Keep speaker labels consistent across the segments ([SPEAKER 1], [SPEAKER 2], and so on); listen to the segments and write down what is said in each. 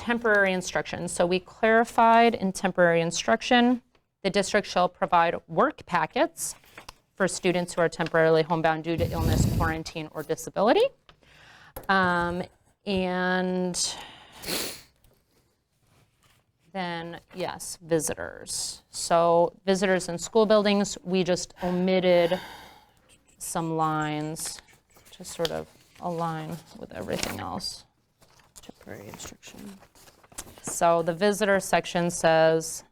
[SPEAKER 1] temporary instruction. So we clarified in temporary instruction, the district shall provide work packets for students who are temporarily homebound due to illness, quarantine, or disability. Um, And then, yes, visitors. So visitors in school buildings, we just omitted some lines to sort of align with everything else.
[SPEAKER 2] Temporary instruction.
[SPEAKER 1] So the visitor section says,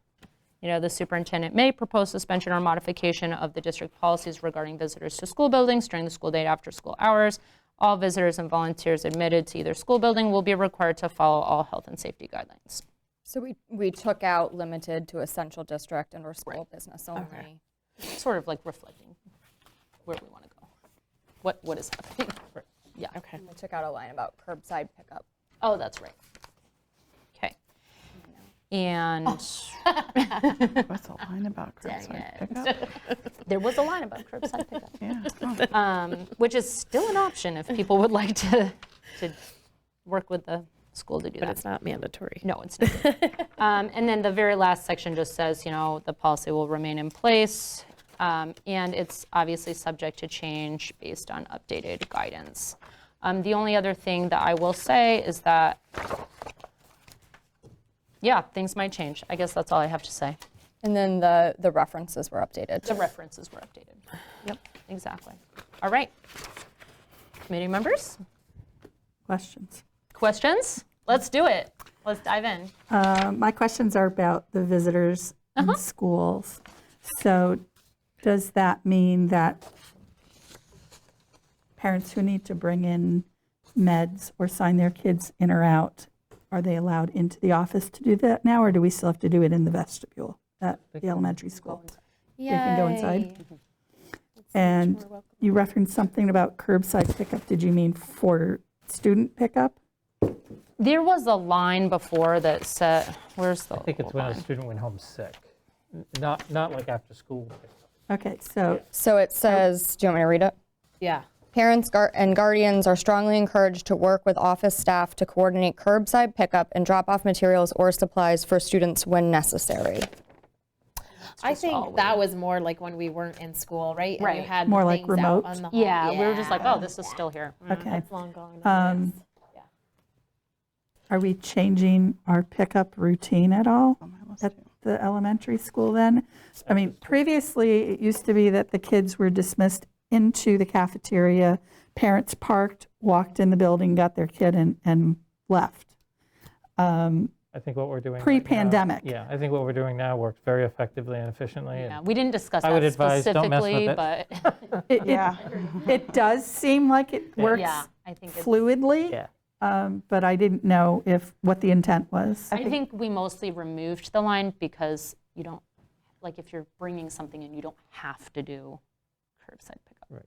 [SPEAKER 1] you know, the superintendent may propose suspension or modification of the district policies regarding visitors to school buildings during the school day after school hours. All visitors and volunteers admitted to either school building will be required to follow all health and safety guidelines.
[SPEAKER 3] So we, we took out limited to essential district and or school business only.
[SPEAKER 1] Sort of like reflecting where we want to go, what, what is happening. Yeah.
[SPEAKER 2] Okay.
[SPEAKER 3] We took out a line about curbside pickup.
[SPEAKER 1] Oh, that's right. Okay. And
[SPEAKER 4] What's the line about curbside pickup?
[SPEAKER 1] there was a line about curbside pickup.
[SPEAKER 4] Yeah. Oh,
[SPEAKER 1] um, which is still an option if people would like to, to work with the school to do
[SPEAKER 2] But
[SPEAKER 1] that.
[SPEAKER 2] it's not mandatory.
[SPEAKER 1] No, it's not. Um, And then the very last section just says, you know, the policy will remain in place, um, and it's obviously subject to change based on updated guidance. Um, The only other thing that I will say is that, yeah, things might change. I guess that's all I have to say.
[SPEAKER 3] And then the, the references were updated.
[SPEAKER 1] The references were updated. Yep, exactly. All right. Committee members?
[SPEAKER 5] Questions.
[SPEAKER 1] Questions? Let's do it. Let's dive in.
[SPEAKER 5] Uh, My questions are about the visitors in schools. So does that mean that parents who need to bring in meds or sign their kids in or out, are they allowed into the office to do that now, or do we still have to do it in the vestibule at the elementary school? They can go inside? And you referenced something about curbside pickup. Did you mean for student pickup?
[SPEAKER 1] There was a line before that said, where's the?
[SPEAKER 6] I think it's when a student went home sick, N- not, not like after school.
[SPEAKER 5] Okay, so
[SPEAKER 3] So it says, do you want me to read it?
[SPEAKER 2] Yeah.
[SPEAKER 3] Parents gar- and guardians are strongly encouraged to work with office staff to coordinate curbside pickup and drop off materials or supplies for students when necessary.
[SPEAKER 7] I
[SPEAKER 1] just all
[SPEAKER 7] think that was more like when we weren't in school, right? And you
[SPEAKER 1] Right.
[SPEAKER 7] had the
[SPEAKER 5] More like
[SPEAKER 7] things out
[SPEAKER 5] remote?
[SPEAKER 7] on the hall.
[SPEAKER 1] Yeah, we were just like, oh, this is still here. Mm.
[SPEAKER 5] Okay.
[SPEAKER 2] Long gone.
[SPEAKER 5] Um, Are we changing our pickup routine at all at the elementary school then? I mean, previously, it used to be that the kids were dismissed into the cafeteria, parents parked, walked in the building, got their kid and, and left. Um,
[SPEAKER 6] I think what we're doing. right now-
[SPEAKER 5] Pre-pandemic.
[SPEAKER 6] Yeah, I think what we're doing now works very effectively and efficiently. and-
[SPEAKER 1] Yeah, We didn't discuss
[SPEAKER 6] I would
[SPEAKER 1] that
[SPEAKER 6] advise don't mess with
[SPEAKER 1] specifically,
[SPEAKER 6] it.
[SPEAKER 1] but
[SPEAKER 5] It- It, it does seem like it works
[SPEAKER 1] yeah, I think, it's-
[SPEAKER 5] fluidly,
[SPEAKER 6] Yeah.
[SPEAKER 5] um, but I didn't know if, what the intent was.
[SPEAKER 1] I think we mostly removed the line because you don't, like, if you're bringing something in, you don't have to do curbside pickup.
[SPEAKER 6] Right.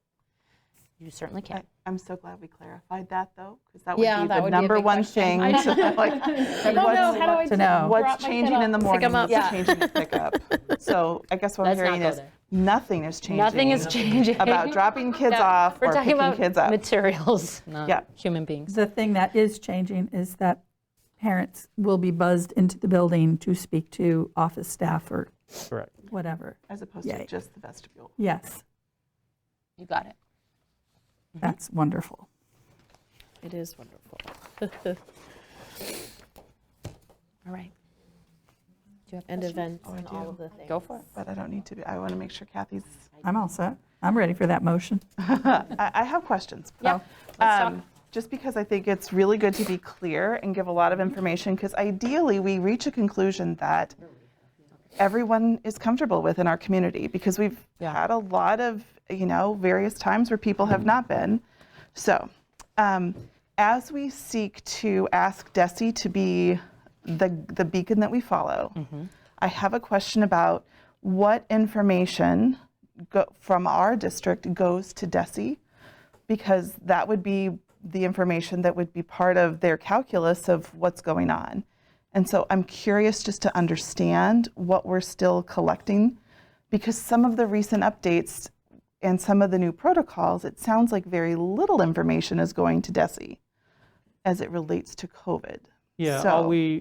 [SPEAKER 1] You certainly can.
[SPEAKER 4] I'm so glad we clarified that, though, because that would
[SPEAKER 7] Yeah,
[SPEAKER 4] be
[SPEAKER 7] that
[SPEAKER 4] the
[SPEAKER 7] would be a
[SPEAKER 4] number
[SPEAKER 7] big
[SPEAKER 4] one
[SPEAKER 7] question.
[SPEAKER 4] thing.
[SPEAKER 7] I
[SPEAKER 4] to, like,
[SPEAKER 7] don't know, how do I
[SPEAKER 5] to know.
[SPEAKER 7] drop
[SPEAKER 4] What's
[SPEAKER 7] my kid
[SPEAKER 4] changing in the
[SPEAKER 7] off? Pick
[SPEAKER 4] morning
[SPEAKER 7] 'em up.
[SPEAKER 4] is changing the pickup. So I guess what I'm
[SPEAKER 1] Let's not
[SPEAKER 4] hearing
[SPEAKER 1] go
[SPEAKER 4] is,
[SPEAKER 1] there.
[SPEAKER 4] nothing is changing.
[SPEAKER 1] Nothing is changing.
[SPEAKER 4] About dropping kids
[SPEAKER 1] No,
[SPEAKER 4] off
[SPEAKER 1] we're
[SPEAKER 4] or
[SPEAKER 1] talking
[SPEAKER 4] picking
[SPEAKER 1] about
[SPEAKER 4] kids up.
[SPEAKER 1] Materials, not
[SPEAKER 4] Yeah.
[SPEAKER 1] human beings.
[SPEAKER 5] The thing that is changing is that parents will be buzzed into the building to speak to office staff or
[SPEAKER 6] Correct.
[SPEAKER 5] whatever.
[SPEAKER 4] As opposed
[SPEAKER 5] Yay.
[SPEAKER 4] to just the vestibule.
[SPEAKER 5] Yes,
[SPEAKER 1] You got it.
[SPEAKER 5] that's wonderful.
[SPEAKER 2] It is wonderful.
[SPEAKER 1] All right.
[SPEAKER 2] And events and all of the things.
[SPEAKER 1] Oh, Go for it.
[SPEAKER 4] But I don't need to be, I want to make sure Kathy's,
[SPEAKER 5] I'm all set. I'm ready for that motion.
[SPEAKER 4] I, I have questions.
[SPEAKER 1] Yeah.
[SPEAKER 4] Um, Just because I think it's really good to be clear and give a lot of information, because ideally, we reach a conclusion that everyone is comfortable with in our community, because we've had a lot of, you know, various times where people have not been. So, um, as we seek to ask Desi to be the, the beacon that we follow, I have a question about what information go, from our district goes to Desi because that would be the information that would be part of their calculus of what's going on. And so I'm curious just to understand what we're still collecting because some of the recent updates and some of the new protocols, it sounds like very little information is going to DESI as it relates to COVID.
[SPEAKER 6] Yeah,
[SPEAKER 4] So-
[SPEAKER 6] all we,